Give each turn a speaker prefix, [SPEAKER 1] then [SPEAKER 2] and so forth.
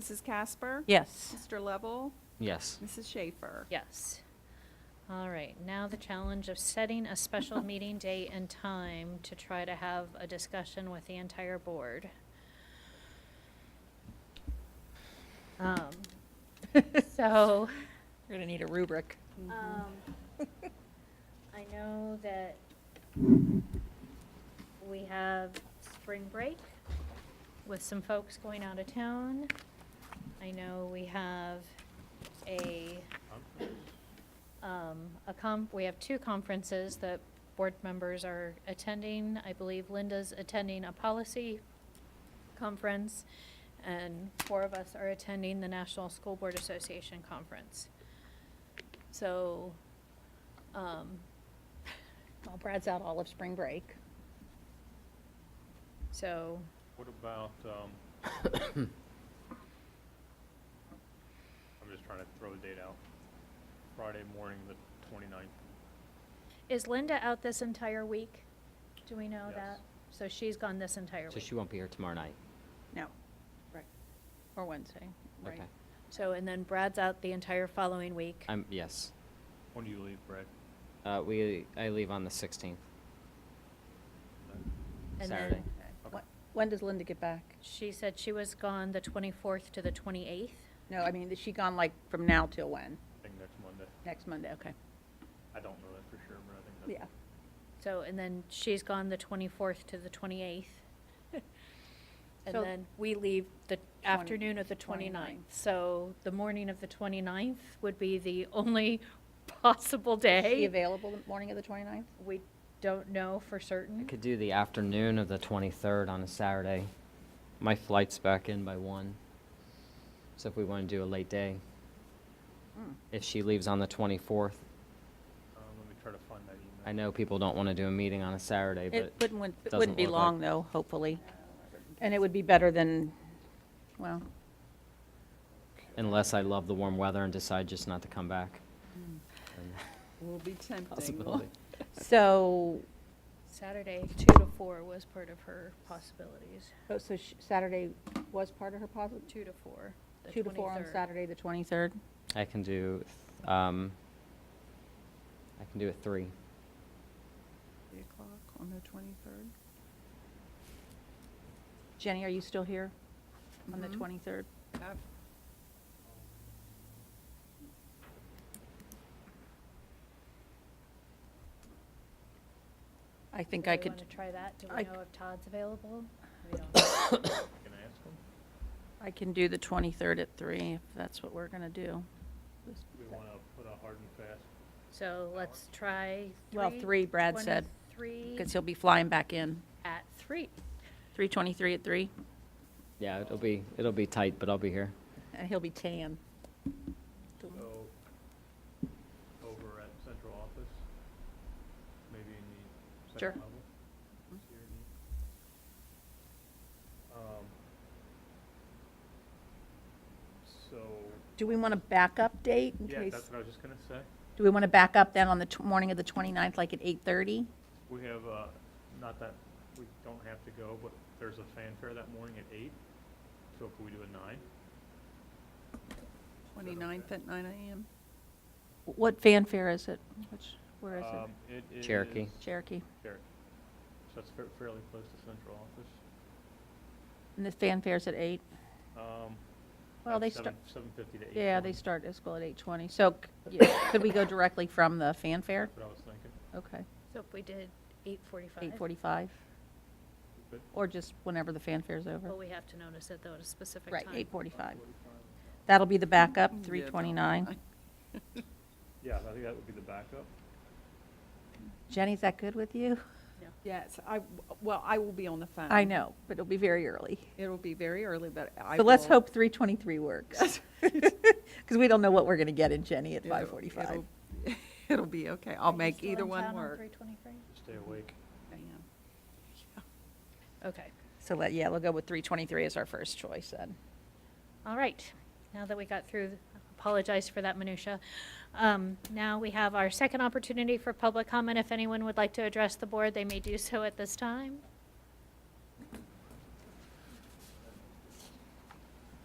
[SPEAKER 1] Mrs. Casper?
[SPEAKER 2] Yes.
[SPEAKER 1] Mr. Lovell?
[SPEAKER 3] Yes.
[SPEAKER 1] Mrs. Schaefer?
[SPEAKER 4] Yes. All right, now the challenge of setting a special meeting date and time to try to have a discussion with the entire board. Um, So,
[SPEAKER 2] We're gonna need a rubric.
[SPEAKER 4] um, I know that we have spring break with some folks going out of town. I know we have a, um, a com, we have two conferences that board members are attending. I believe Linda's attending a policy conference, and four of us are attending the National School Board Association Conference. So, um, well, Brad's out all of spring break. So,
[SPEAKER 5] What about, um, I'm just trying to throw a date out. Friday morning, the 29th.
[SPEAKER 4] is Linda out this entire week? Do we know
[SPEAKER 5] Yes.
[SPEAKER 4] that? So she's gone this entire
[SPEAKER 3] So
[SPEAKER 4] week.
[SPEAKER 3] she won't be here tomorrow night?
[SPEAKER 1] No.
[SPEAKER 2] Right.
[SPEAKER 4] Or Wednesday.
[SPEAKER 3] Okay.
[SPEAKER 4] So, and then Brad's out the entire following week.
[SPEAKER 3] I'm, yes.
[SPEAKER 5] When do you leave, Brad?
[SPEAKER 3] Uh, we, I leave on the sixteenth.
[SPEAKER 4] And
[SPEAKER 3] Saturday.
[SPEAKER 4] then
[SPEAKER 5] Okay.
[SPEAKER 2] When does Linda get back?
[SPEAKER 4] she said she was gone the twenty-fourth to the twenty-eighth.
[SPEAKER 2] No, I mean, is she gone like from now till when?
[SPEAKER 5] I think next Monday.
[SPEAKER 2] Next Monday, okay.
[SPEAKER 5] I don't know that for sure, but I think that's.
[SPEAKER 2] Yeah.
[SPEAKER 4] So, and then she's gone the twenty-fourth to the twenty-eighth. And
[SPEAKER 2] So-
[SPEAKER 4] then we leave the afternoon of the 29th.
[SPEAKER 2] 29th.
[SPEAKER 4] So the morning of the 29th would be the only possible
[SPEAKER 2] Is she
[SPEAKER 4] day.
[SPEAKER 2] available the morning of the 29th?
[SPEAKER 4] We don't know for
[SPEAKER 3] I
[SPEAKER 4] certain.
[SPEAKER 3] could do the afternoon of the twenty-third on a Saturday. My flight's back in by one. So if we want to do a late day,
[SPEAKER 2] Mm.
[SPEAKER 3] if she leaves on the twenty-fourth,
[SPEAKER 5] Um, let me try to find that email.
[SPEAKER 3] I know people don't want to do a meeting on a Saturday,
[SPEAKER 2] It
[SPEAKER 3] but
[SPEAKER 2] wouldn't, it
[SPEAKER 3] doesn't
[SPEAKER 2] wouldn't be
[SPEAKER 3] look like-
[SPEAKER 2] long though, hopefully. And it would be better than, well,
[SPEAKER 3] unless I love the warm weather and decide just not to come back. then
[SPEAKER 1] Will be tempting.
[SPEAKER 3] Possibility.
[SPEAKER 2] so,
[SPEAKER 4] Saturday, two to four was part of her possibilities.
[SPEAKER 2] oh, so sh- Saturday was part of her positive?
[SPEAKER 4] Two to four. the
[SPEAKER 2] Two to four on
[SPEAKER 4] 23rd.
[SPEAKER 2] Saturday, the 23rd?
[SPEAKER 3] I can do, th- um, I can do a three.
[SPEAKER 1] Three o'clock on the twenty-third.
[SPEAKER 2] Jenny, are you still here on the
[SPEAKER 1] Mhm.
[SPEAKER 2] 23rd? I think
[SPEAKER 4] Do
[SPEAKER 2] I
[SPEAKER 4] we
[SPEAKER 2] could,
[SPEAKER 4] wanna try that? Do
[SPEAKER 2] I-
[SPEAKER 4] we know if Todd's available? We don't.
[SPEAKER 5] Can I ask him?
[SPEAKER 2] I can do the 23rd at 3, if that's what we're going to do.
[SPEAKER 5] Do we want to put a hard and fast?
[SPEAKER 4] So let's try.
[SPEAKER 2] Well, three, Brad said,
[SPEAKER 4] 23
[SPEAKER 2] Because he'll be flying back in.
[SPEAKER 4] at three.
[SPEAKER 2] 3:23 at 3,
[SPEAKER 3] Yeah, it'll be, it'll be tight, but I'll be here.
[SPEAKER 2] and he'll be tan.
[SPEAKER 5] So, over at central office, maybe in the
[SPEAKER 2] Sure. Mm-hmm.
[SPEAKER 5] second level? Sierra Neat. Um, So,
[SPEAKER 2] Do we want to back up date in
[SPEAKER 5] yeah,
[SPEAKER 2] case?
[SPEAKER 5] that's what I was just gonna say.
[SPEAKER 2] Do we want to back up then on the tw- morning of the 29th, like at 8:30?
[SPEAKER 5] We have, uh, not that, we don't have to go, but there's a fanfare that morning at eight, so can we do a nine?
[SPEAKER 1] Twenty-ninth at nine AM.
[SPEAKER 2] What fanfare is it? Which, where is
[SPEAKER 5] Um,
[SPEAKER 2] it?
[SPEAKER 5] It
[SPEAKER 3] Cherokee.
[SPEAKER 5] is
[SPEAKER 2] Cherokee.
[SPEAKER 5] Cherokee. So that's fa- fairly close to central office.
[SPEAKER 2] And the fanfare's at 8?
[SPEAKER 5] Um,
[SPEAKER 2] Well,
[SPEAKER 5] at
[SPEAKER 2] they
[SPEAKER 5] seven-
[SPEAKER 2] start,
[SPEAKER 5] Seven fifty to eight.
[SPEAKER 2] yeah, they
[SPEAKER 5] twenty.
[SPEAKER 2] start at school at 8:20. So c- yeah, could we go directly from the fanfare?
[SPEAKER 5] That's what I was thinking.
[SPEAKER 2] Okay,
[SPEAKER 4] So if we did eight forty-five.
[SPEAKER 2] 8:45?
[SPEAKER 5] Good.
[SPEAKER 2] Or just whenever the fanfare's
[SPEAKER 4] But
[SPEAKER 2] over?
[SPEAKER 4] we have to notice it though at a specific time.
[SPEAKER 2] Right, 8:45. That'll be the backup, 3:29.
[SPEAKER 5] Yeah, I think that would be the backup.
[SPEAKER 2] Jenny, is that good with you?
[SPEAKER 1] Yes, I, well, I will be on the phone.
[SPEAKER 2] I know, but it'll be very early.
[SPEAKER 1] It'll be very early, but I
[SPEAKER 2] So let's
[SPEAKER 1] will-
[SPEAKER 2] hope 3:23 works. Because we don't know what we're going to get in Jenny at
[SPEAKER 1] it'll-
[SPEAKER 2] 5:45.
[SPEAKER 1] it'll- It'll be okay. I'll make either one work.
[SPEAKER 4] Three twenty-three?
[SPEAKER 5] Stay awake.
[SPEAKER 1] I am.
[SPEAKER 4] Okay,
[SPEAKER 2] So let, yeah, we'll go with 3:23 as our first choice then.
[SPEAKER 4] all right. Now that we got through, apologize for that minutia. Um, now we have our second opportunity for public comment. If anyone would like to address the board, they may do so at this time.